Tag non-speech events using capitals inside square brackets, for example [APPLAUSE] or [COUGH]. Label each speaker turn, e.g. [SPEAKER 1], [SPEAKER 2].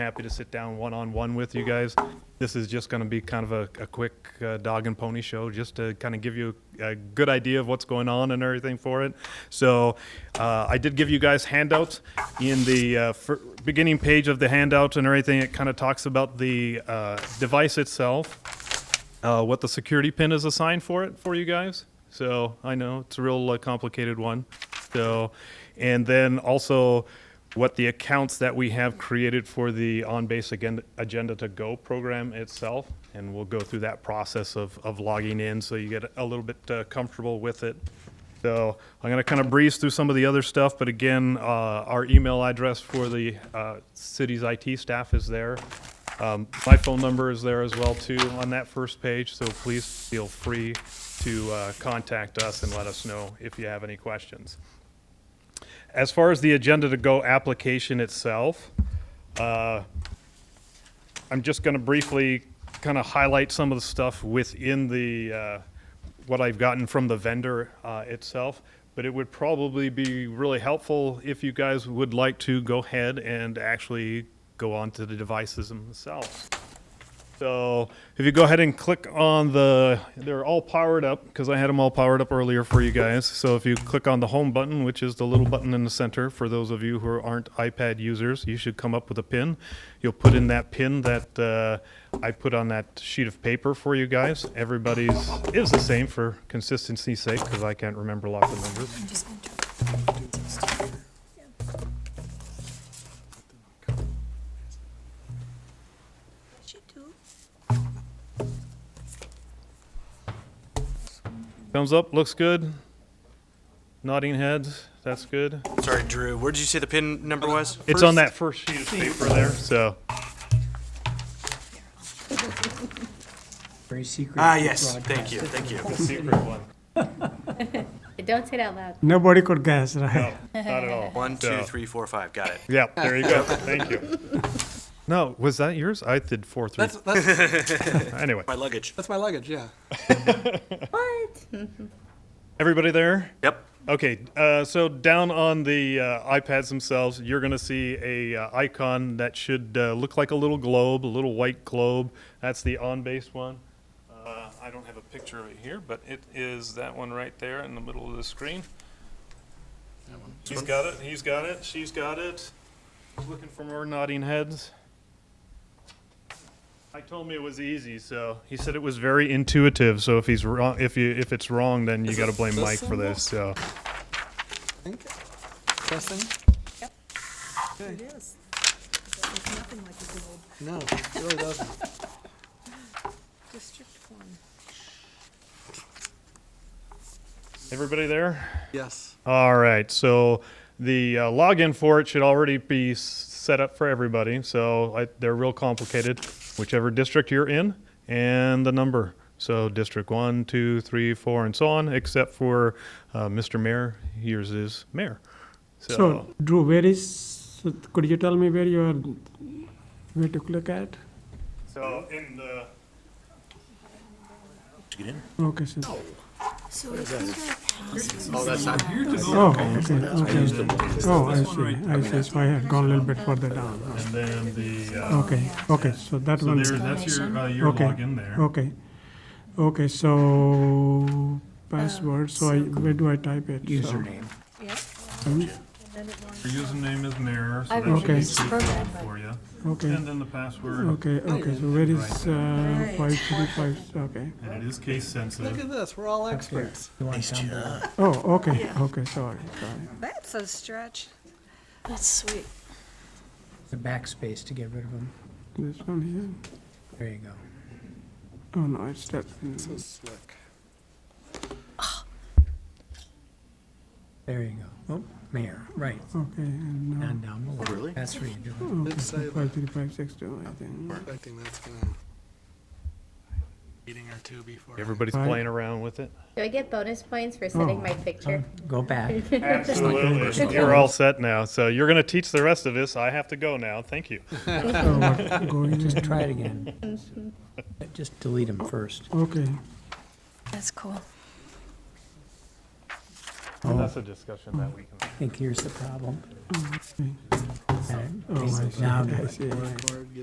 [SPEAKER 1] happy to sit down one-on-one with you guys. This is just going to be kind of a, a quick uh, dog and pony show, just to kind of give you a good idea of what's going on and everything for it. So uh, I did give you guys handouts in the uh, fir- beginning page of the handout and everything. It kind of talks about the uh, device itself uh, what the security pin is assigned for it for you guys. So I know it's a real uh, complicated one. So, and then also what the accounts that we have created for the on base again agenda to go program itself, and we'll go through that process of of logging in so you get a little bit uh, comfortable with it. So I'm gonna kind of breeze through some of the other stuff, but again, uh, our email address for the uh, city's IT staff is there. Um, My phone number is there as well too on that first page, so please feel free to uh, contact us and let us know if you have any questions. As far as the Agenda to Go application itself, uh, I'm just going to briefly kind of highlight some of the stuff within the, uh, what I've gotten from the vendor uh, itself. But it would probably be really helpful if you guys would like to go ahead and actually go on to the devices themselves. So if you go ahead and click on the, they're all powered up because I had them all powered up earlier for you guys. So if you click on the home button, which is the little button in the center, for those of you who aren't iPad users, you should come up with a pin. You'll put in that pin that uh, I put on that sheet of paper for you guys. Everybody's is the same for consistency's sake because I can't remember lots of numbers.
[SPEAKER 2] Just enter. She do.
[SPEAKER 1] Thumbs up, looks good. Nodding heads, that's good.
[SPEAKER 3] Sorry, Drew. Where did you say the pin number was?
[SPEAKER 1] It's on that first sheet of paper there, so.
[SPEAKER 4] Very secret.
[SPEAKER 3] Ah, yes. Thank you. Thank you.
[SPEAKER 1] Secret one.
[SPEAKER 5] Don't say it out loud.
[SPEAKER 4] Nobody could guess, right?
[SPEAKER 1] No, not at all.
[SPEAKER 3] One, two,
[SPEAKER 1] So-
[SPEAKER 3] three, four, five. Got it.
[SPEAKER 1] Yeah, there you go. Thank you. No, was that yours? I did four, three.
[SPEAKER 6] [LAUGHS] That's, that's,
[SPEAKER 1] Anyway,
[SPEAKER 3] My luggage.
[SPEAKER 6] that's my luggage, yeah.
[SPEAKER 1] everybody there?
[SPEAKER 3] Yep.
[SPEAKER 1] Okay, uh, so down on the uh, iPads themselves, you're going to see a uh, icon that should uh, look like a little globe, a little white globe. That's the on-base one. Uh, I don't have a picture of it here, but it is that one right there in the middle of the screen. He's got it. He's got it. She's got it. Looking for more nodding heads. I told me it was easy, so he said it was very intuitive. So if he's wrong, if you if it's wrong, then you
[SPEAKER 6] Is
[SPEAKER 1] got to
[SPEAKER 6] it
[SPEAKER 1] blame
[SPEAKER 6] this
[SPEAKER 1] Mike for
[SPEAKER 6] symbol?
[SPEAKER 1] this. So
[SPEAKER 6] I think. Testing?
[SPEAKER 2] It is. It's nothing like a good old
[SPEAKER 6] No, it really doesn't.
[SPEAKER 2] district one.
[SPEAKER 1] everybody there.
[SPEAKER 6] Yes.
[SPEAKER 1] All right, so the uh, login for it should already be s- set up for everybody. So I, they're real complicated, whichever district you're in, and the number. So district one, two, three, four, and so on, except for uh, Mr. Mayor. Yours is mayor. So,
[SPEAKER 4] So, Drew, where is, could you tell me where you are, where to click at?
[SPEAKER 1] so in the
[SPEAKER 4] Okay, so.
[SPEAKER 2] So if you
[SPEAKER 4] Oh, okay, okay. Oh, I see, I see, so I have gone a little bit further down.
[SPEAKER 1] and then the uh,
[SPEAKER 4] Okay, okay, so that
[SPEAKER 1] so
[SPEAKER 4] one,
[SPEAKER 1] there, that's your uh, your
[SPEAKER 4] Okay.
[SPEAKER 1] login there.
[SPEAKER 4] okay. Okay, so password, so I, where do I type it? Username.
[SPEAKER 2] Yep.
[SPEAKER 1] Your username is mayor. So
[SPEAKER 5] I
[SPEAKER 1] that should be
[SPEAKER 4] Okay.
[SPEAKER 1] suitable for you.
[SPEAKER 4] Okay,
[SPEAKER 1] And then the password,
[SPEAKER 4] okay, okay, so where is, uh, five, three, five, okay.
[SPEAKER 1] and it is case sensitive.
[SPEAKER 6] Look at this. We're all experts.
[SPEAKER 4] Oh, okay, okay, sorry, sorry.
[SPEAKER 2] That's a stretch. That's sweet.
[SPEAKER 7] The backspace to get rid of them.
[SPEAKER 4] This one here,
[SPEAKER 7] There you go.
[SPEAKER 4] oh no, it's that,
[SPEAKER 6] So slick.
[SPEAKER 7] There you go. Oh, mayor, right,
[SPEAKER 4] okay, and now.
[SPEAKER 7] and down below. Really? That's where you do it.
[SPEAKER 4] Okay,
[SPEAKER 6] Let's say-
[SPEAKER 4] five three five six two, I think.
[SPEAKER 6] Expecting that's gonna. Meeting or two before. I-
[SPEAKER 1] Everybody's
[SPEAKER 4] Right.
[SPEAKER 1] playing around with it.
[SPEAKER 5] Do I get bonus points for setting my picture?
[SPEAKER 7] Go back.
[SPEAKER 1] Absolutely. You're all set now. So you're going to teach the rest of us. I have to go now. Thank you.
[SPEAKER 4] So what, going,
[SPEAKER 7] Just try it again.
[SPEAKER 4] [LAUGHS]
[SPEAKER 7] Just delete them first.
[SPEAKER 4] okay,
[SPEAKER 2] That's cool.
[SPEAKER 1] That's a discussion that we can.
[SPEAKER 7] I think here's the problem.
[SPEAKER 4] Oh, Okay.
[SPEAKER 7] All right,
[SPEAKER 4] Oh, I see.
[SPEAKER 7] Now,
[SPEAKER 4] I see.
[SPEAKER 6] Card,